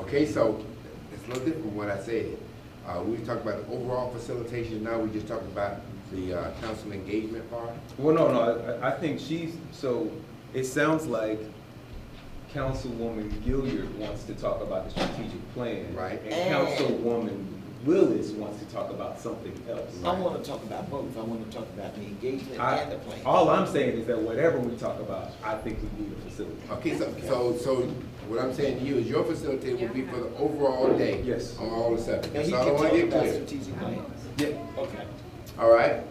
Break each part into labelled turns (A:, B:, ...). A: Okay, so it's a little different from what I said. Uh, we talked about overall facilitation, now we just talking about the, uh, council engagement part.
B: Well, no, no, I, I think she's, so it sounds like Councilwoman Gilliard wants to talk about the strategic plan.
A: Right.
B: And Councilwoman Willis wants to talk about something else.
C: I want to talk about both. I want to talk about the engagement
B: I-
C: and the
A: Oh,
C: plan.
B: All I'm saying is that whatever we talk about, I think we need a facility.
A: Okay, so, so, so what I'm saying to you is your facilitator will be for the overall day.
B: Yes.
A: On all the subjects.
C: And
A: That's
C: he can
A: all I
C: talk
A: wanna get
C: about
A: clear.
C: strategic plan.
B: Yeah,
C: Okay.
A: All right?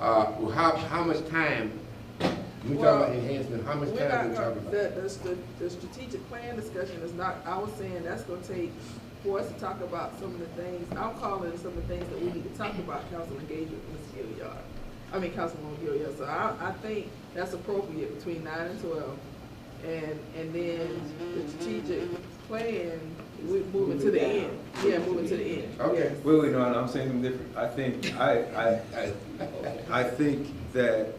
A: Uh, well, how, how much time, we talking
D: Well,
A: about enhancement, how much
D: We're
A: time
D: not
A: we
D: gonna,
A: talking about?
D: the, the, st- the strategic plan discussion is not, I was saying that's gonna take for us to talk about some of the things, I'm calling some of the things that we need to talk about, council engagement with Ms. Gilliard. I mean, Councilwoman Gilliard, so I, I think that's appropriate between nine and twelve. And, and then the strategic plan, we move it to the end, yeah, move it to the end.
A: Okay.
B: wait, wait, no, no, I'm saying something different. I think, I, I,
A: Uh,
B: I think that,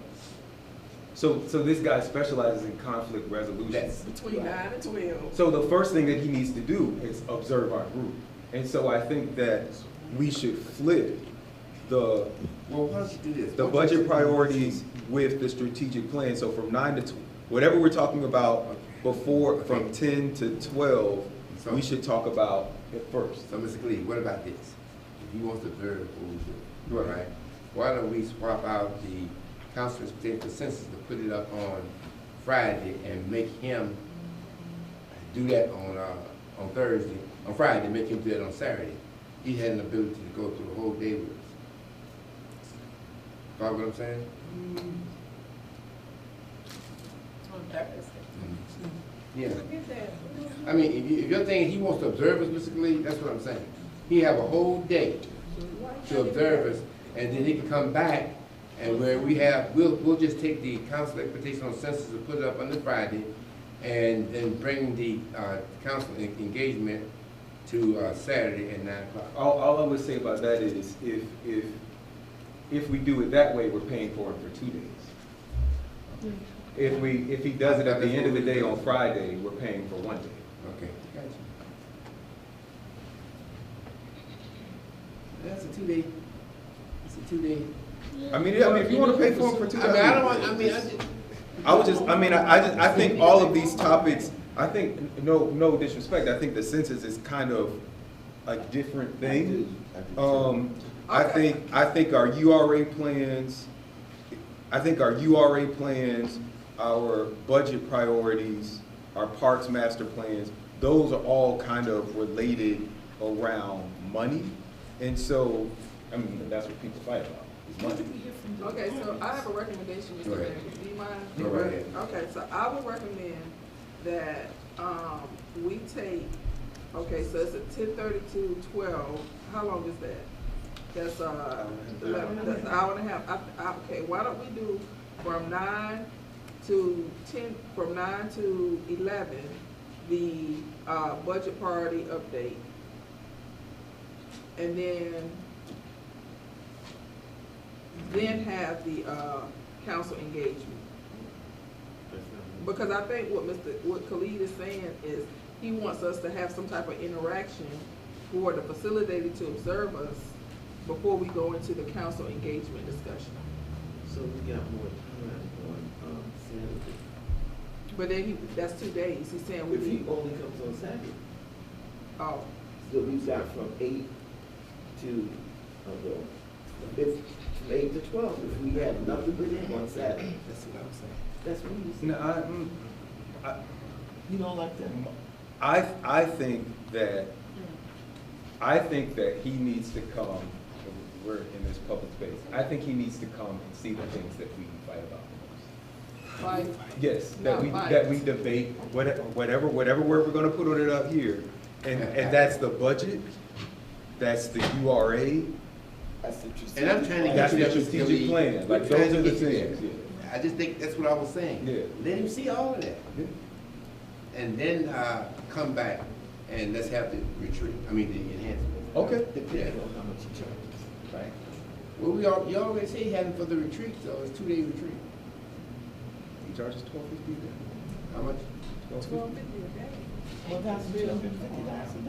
B: so, so this guy specializes in conflict resolution.
A: Yes.
D: Between nine and twelve.
B: So the first thing that he needs to do is observe our group. And so I think that we should flip the,
A: Well, why don't you do this?
B: the
A: Why don't you-
B: budget priorities with the strategic plan. So from nine to, tw- whatever we're talking about before, from ten to twelve, we should talk about it first.
A: So, Mr. Cleve, what about this? If you want to observe what we do,
B: Right.
A: right? Why don't we swap out the council's consensus to put it up on Friday and make him do that on, uh, on Thursday, on Friday, make him do it on Saturday? He had an ability to go through the whole day with us. Got what I'm saying? Yeah. I mean, if you, if you're thinking he wants to observe us, Mr. Cleve, that's what I'm saying. He have a whole day to observe us, and then he can come back, and where we have, we'll, we'll just take the council expectation on census and put it up on the Friday, and then bring the, uh, council en- engagement to, uh, Saturday at nine o'clock.
B: All, all I would say about that is, if, if, if we do it that way, we're paying for it for two days. If we, if he does it at the end of the day on Friday, we're paying for one day.
A: Okay. Gotcha. That's a two-day, it's a two-day.
B: I mean, I mean, if you want to pay for it for
A: I
B: two
A: mean,
B: dollars.
A: I don't want, I mean, I just.
B: I would just, I mean, I, I just, I think all of these topics, I think, no, no disrespect, I think the census is kind of a different thing. Um, I
D: Okay.
B: think, I think our URA plans, I think our URA plans, our budget priorities, our parks master plans, those are all kind of related around money. And so, I mean, that's what people fight about, is money.
D: Okay, so I have a recommendation,
A: Go
D: Mr.
A: ahead.
D: Mayor, do you mind?
A: Go right ahead.
D: Okay, so I would recommend that, um, we take, okay, so it's a ten thirty to twelve, how long is that? That's, uh, eleven, that's an hour and a half, I, I, okay, why don't we do from nine to ten, from nine to eleven, the, uh, budget priority update? And then then have the, uh, council engagement. Because I think what Mr., what Khalid is saying is, he wants us to have some type of interaction for the facilitator to observe us before we go into the council engagement discussion.
C: So we got more time on, um, Saturday.
D: But then he, that's two days, he's saying we
C: If he
D: need,
C: only comes on Saturday,
D: oh,
C: so we've got from eight to, uh, well, if, from eight to twelve, if we have nothing but him on Saturday.
A: That's what I'm saying.
C: That's what you said.
B: No, I, mm, I, mm,
C: You don't like that?
B: I, I think that, I think that he needs to come, we're in this public space, I think he needs to come and see the things that we fight about.
D: like,
B: Yes, that we, that we debate, whatever, whatever, whatever word we're gonna put on it up here, and, and that's the budget, that's the URA,
C: That's interesting.
A: And I'm trying to
B: that's
A: get you
B: the
A: that
B: strategic plan, like,
A: We're trying
B: those
A: to
B: are the
A: get you
B: things.
A: there. I just think that's what I was saying.
B: Yeah.
A: Let him see all of that.
B: Yeah.
A: And then, uh, come back and let's have the retreat, I mean, the enhancement.
B: Okay.
C: Depending on how much you charge, right?
A: Well, we all, you already say he had him for the retreat, so it's two-day retreat.
B: He charges twelve fifty
A: How much?
B: then?
D: twelve fifty a day.
C: Well, that's real.